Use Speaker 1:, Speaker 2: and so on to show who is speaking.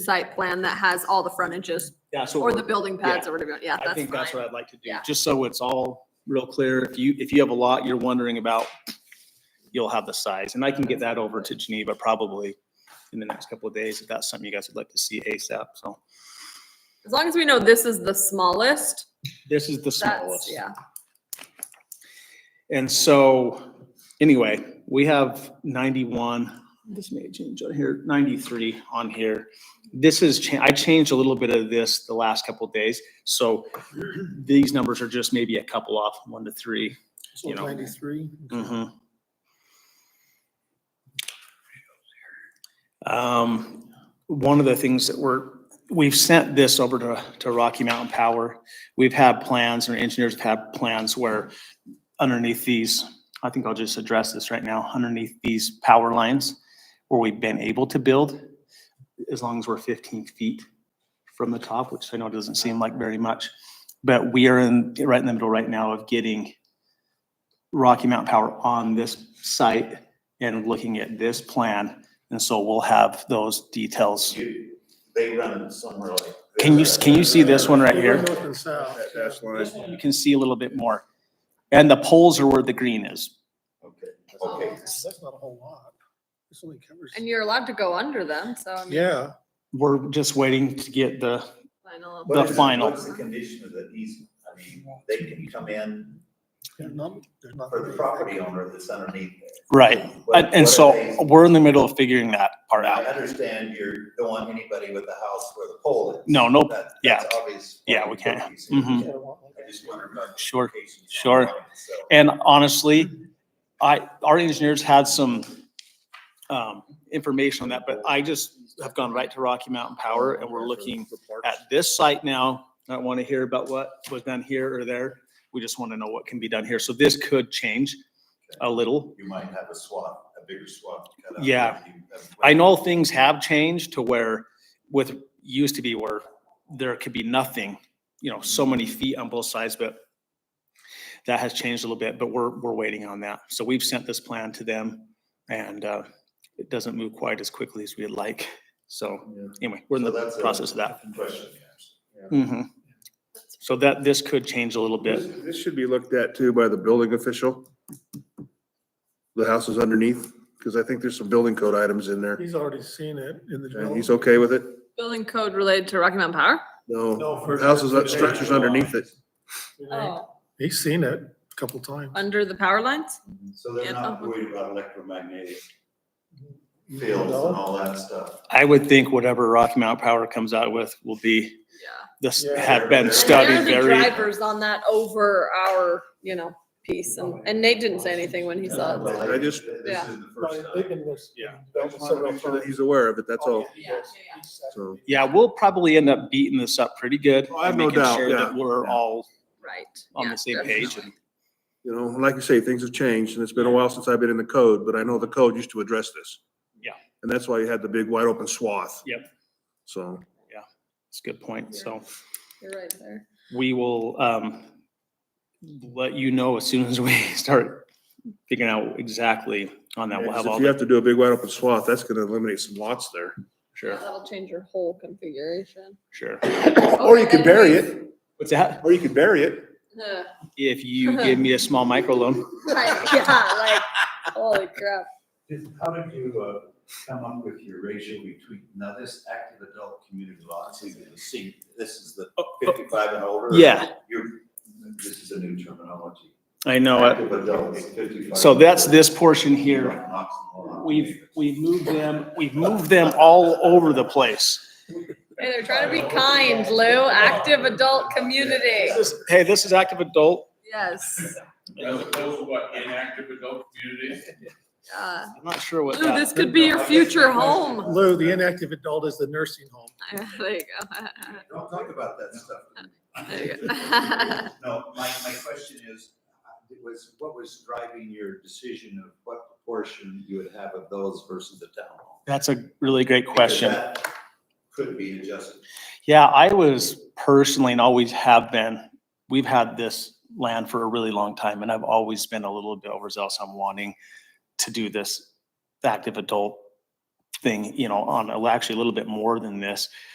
Speaker 1: site plan that has all the frontages
Speaker 2: Yeah, so.
Speaker 1: or the building pads or whatever. Yeah,
Speaker 2: I
Speaker 1: that's
Speaker 2: think that's
Speaker 1: fine.
Speaker 2: what I'd like to do,
Speaker 1: Yeah.
Speaker 2: just so it's all real clear. If you, if you have a lot you're wondering about, you'll have the size, and I can get that over to Geneva probably in the next couple of days, if that's something you guys would like to see ASAP, so.
Speaker 1: As long as we know this is the smallest,
Speaker 2: This is the
Speaker 1: that's,
Speaker 2: smallest.
Speaker 1: yeah.
Speaker 2: And so, anyway, we have ninety-one, this may change on here, ninety-three on here. This is, cha- I changed a little bit of this the last couple of days, so these numbers are just maybe a couple off, one to three. you know.
Speaker 3: Ninety-three.
Speaker 2: Mhm. Um, one of the things that we're, we've sent this over to, to Rocky Mountain Power. We've had plans, and engineers have had plans where underneath these, I think I'll just address this right now, underneath these power lines where we've been able to build, as long as we're fifteen feet from the top, which I know doesn't seem like very much. But we are in, right in the middle right now of getting Rocky Mountain Power on this site and looking at this plan. And so we'll have those details.
Speaker 4: You, they run somewhere like.
Speaker 2: Can you, can you see this one right here?
Speaker 3: North and south.
Speaker 4: That dash line?
Speaker 2: This one You can see a little bit more. And the poles are where the green is.
Speaker 4: Okay, okay.
Speaker 3: That's not a whole lot. This only covers.
Speaker 1: And you're allowed to go under them, so I mean.
Speaker 3: Yeah,
Speaker 2: We're just waiting to get the,
Speaker 1: final.
Speaker 4: What is it-
Speaker 2: final.
Speaker 4: What's the condition of the easement? I mean, they can come in
Speaker 3: there's none, there's not.
Speaker 4: for the property owner that's underneath there.
Speaker 2: right.
Speaker 4: What-
Speaker 2: And, and
Speaker 4: what
Speaker 2: so
Speaker 4: are they-
Speaker 2: we're in the middle of figuring that part
Speaker 4: I
Speaker 2: out.
Speaker 4: understand you don't want anybody with a house where the pole is.
Speaker 2: No, no,
Speaker 4: That-
Speaker 2: yeah.
Speaker 4: That's obvious.
Speaker 2: Yeah, we can't.
Speaker 4: You see,
Speaker 2: Mhm.
Speaker 4: I just wonder about. the
Speaker 2: Sure,
Speaker 4: implications on
Speaker 2: sure.
Speaker 4: that, so.
Speaker 2: And honestly, I, our engineers had some um, information on that, but I just have gone right to Rocky Mountain Power and we're looking at this site now, I don't want to hear about what was done here or there. We just want to know what can be done here. So this could change a little.
Speaker 4: You might have a swath, a bigger swath. cut out.
Speaker 2: Yeah.
Speaker 4: You- that's-
Speaker 2: I know things have changed to where with, used to be where there could be nothing, you know, so many feet on both sides, but that has changed a little bit, but we're, we're waiting on that. So we've sent this plan to them and uh, it doesn't move quite as quickly as we'd like. So
Speaker 4: Yeah.
Speaker 2: anyway, we're in
Speaker 4: So
Speaker 2: the
Speaker 4: that's a
Speaker 2: process of that.
Speaker 4: Question, yes.
Speaker 2: Mhm. So that, this could change a little bit.
Speaker 5: This this should be looked at too by the building official. The house is underneath, because I think there's some building code items in there.
Speaker 3: He's already seen it in the.
Speaker 5: And
Speaker 3: development.
Speaker 5: he's okay with it?
Speaker 1: Building code related to Rocky Mountain Power?
Speaker 5: No,
Speaker 3: No, for-
Speaker 5: house is, structure's underneath it.
Speaker 1: Oh,
Speaker 3: He's seen it a couple times.
Speaker 1: under the power lines?
Speaker 4: So they're
Speaker 1: Yeah. uh-huh.
Speaker 4: not worried about electromagnetic fields and all that stuff.
Speaker 2: I would think whatever Rocky Mountain Power comes out with will be,
Speaker 1: Yeah.
Speaker 2: this
Speaker 3: Yeah.
Speaker 2: have been
Speaker 4: They're
Speaker 2: studied
Speaker 1: And There are the
Speaker 2: very,
Speaker 1: drivers on that over our, you know, piece
Speaker 2: Oh,
Speaker 1: and, and Nate didn't say anything when he saw it.
Speaker 4: Well,
Speaker 5: I just-
Speaker 4: This
Speaker 1: Yeah.
Speaker 4: is the first
Speaker 3: Right, they've
Speaker 4: time.
Speaker 3: been this-
Speaker 2: Yeah.
Speaker 5: I just wanna make sure that He's aware of it, that's all. So,
Speaker 2: yeah, we'll probably end up beating this up pretty good.
Speaker 5: Oh, I have
Speaker 2: and
Speaker 5: no
Speaker 2: making
Speaker 5: doubt,
Speaker 2: sure
Speaker 5: yeah.
Speaker 2: that We're all
Speaker 1: Right.
Speaker 2: on
Speaker 1: yeah,
Speaker 2: the same page
Speaker 1: definitely.
Speaker 2: and
Speaker 5: you know, like you say, things have changed, and it's been a while since I've been in the code, but I know the code used to address this.
Speaker 2: Yeah.
Speaker 5: And that's why you had the big wide open swath.
Speaker 2: Yep.
Speaker 5: So.
Speaker 2: it's a good point. So
Speaker 1: You're right there.
Speaker 2: we will um let you know as soon as we start figuring out exactly on that. We'll have all
Speaker 5: If you
Speaker 2: the,
Speaker 5: have to do a big wide open swath, that's gonna eliminate some lots there.
Speaker 1: Yeah,
Speaker 2: sure,
Speaker 1: That'll change your whole configuration.
Speaker 2: sure.
Speaker 1: Or you could bury it.
Speaker 2: What's that?
Speaker 5: Or you could bury it.
Speaker 1: Yeah,
Speaker 2: If you give me a small micro loan.
Speaker 1: like, holy crap.
Speaker 4: How did you, uh, come up with your ratio between, now this active adult community lots, is the C, this is the fifty-five and older?
Speaker 2: Yeah.
Speaker 4: You're, this is a new terminology.
Speaker 2: I know it.
Speaker 4: Active adults, fifty-five.
Speaker 2: So that's
Speaker 4: and older.
Speaker 2: this portion here.
Speaker 4: Knocks them all out.
Speaker 2: We've, we've moved them, we've moved them all over the place.
Speaker 1: Hey, they're trying to be kind, Lou. Active adult community.
Speaker 2: This is- Hey, this is active adult.
Speaker 1: Yes.
Speaker 6: As opposed to what, inactive adult community?
Speaker 1: Uh,
Speaker 2: I'm not sure what
Speaker 1: Lou, this
Speaker 2: that,
Speaker 1: could be your future home.
Speaker 3: Lou, the inactive adult is the nursing home.
Speaker 1: There you go.
Speaker 4: Don't talk about that stuff. to
Speaker 1: There you
Speaker 4: me.
Speaker 1: go.
Speaker 4: No, my, my question is, uh, was, what was driving your decision of what proportion you would have of those versus the town hall?
Speaker 2: that's a really great question.
Speaker 4: Because that Could be adjusted.
Speaker 2: Yeah, I was personally and always have been, we've had this land for a really long time and I've always been a little bit overzealous on wanting to do this active adult thing, you know, on, actually a little bit more than this.